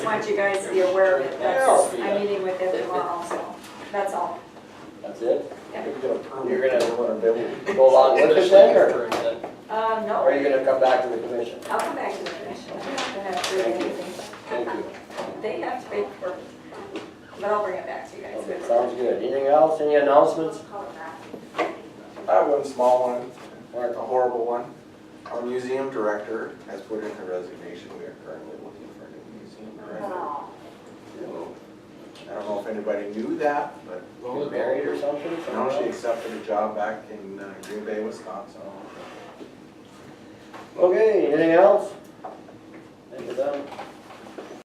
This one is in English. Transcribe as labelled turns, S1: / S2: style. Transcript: S1: want you guys to be aware of it, that's, I'm meeting with them tomorrow, so, that's all.
S2: That's it?
S1: Yeah.
S2: You're gonna go along with it then, or
S1: Um, no,
S2: are you gonna come back to the commission?
S1: I'll come back to the commission, I'm not gonna have to do anything,
S2: Thank you.
S1: they have to pay for it, but I'll bring it back to you guys.
S2: Okay, sounds good. Anything else? Any announcements?
S3: I have one small one,
S2: Mark?
S3: a horrible one. Our museum director has put in her resignation. We are currently looking for a new museum director.
S1: Aw.
S3: I don't know if anybody knew that, but
S2: You married or something?
S3: now she accepted a job back in uh, Green Bay, Wisconsin.
S2: Okay, anything else? Think we're done.